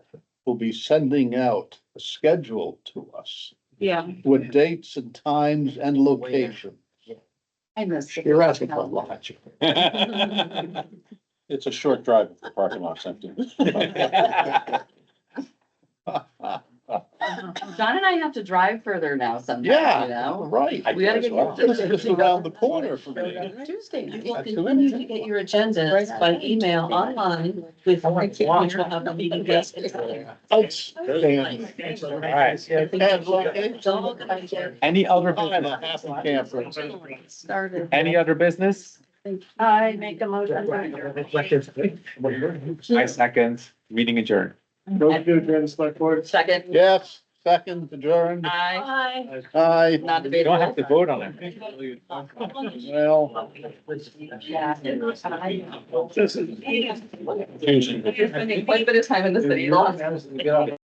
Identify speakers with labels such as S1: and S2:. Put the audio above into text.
S1: will be sending out a schedule to us
S2: Yeah,
S1: with dates and times and location.
S2: I missed it.
S1: You're asking for a lot.
S3: It's a short drive if the parking lot's empty.
S2: Uh-huh. John and I have to drive further now sometimes, you
S1: Yeah,
S2: know?
S1: right.
S3: I
S2: We gotta
S3: guess
S2: get
S3: well.
S1: This is just around the corner for me.
S2: Tuesday night.
S4: You'll
S1: That's
S4: continue
S1: it.
S4: to get your agendas by email online with, which will have a meeting guest.
S1: Thanks. Dan. And
S4: It's all
S1: location.
S4: kind of-
S5: Any other
S1: I'm a
S5: business?
S1: happy camper.
S2: Started.
S5: Any other business?
S2: I make a motion. to adjourn.
S5: I second, meeting adjourned.
S6: Those two during the select board.
S2: Second.
S1: Yes, second adjourned.
S2: Aye.
S1: Aye.
S2: Ah, Not
S5: You don't
S2: debatable.
S5: have to vote on it.
S1: Well,
S2: Yeah.
S6: This is.
S2: You're spending quite a bit of time in the city.
S6: Get out of here.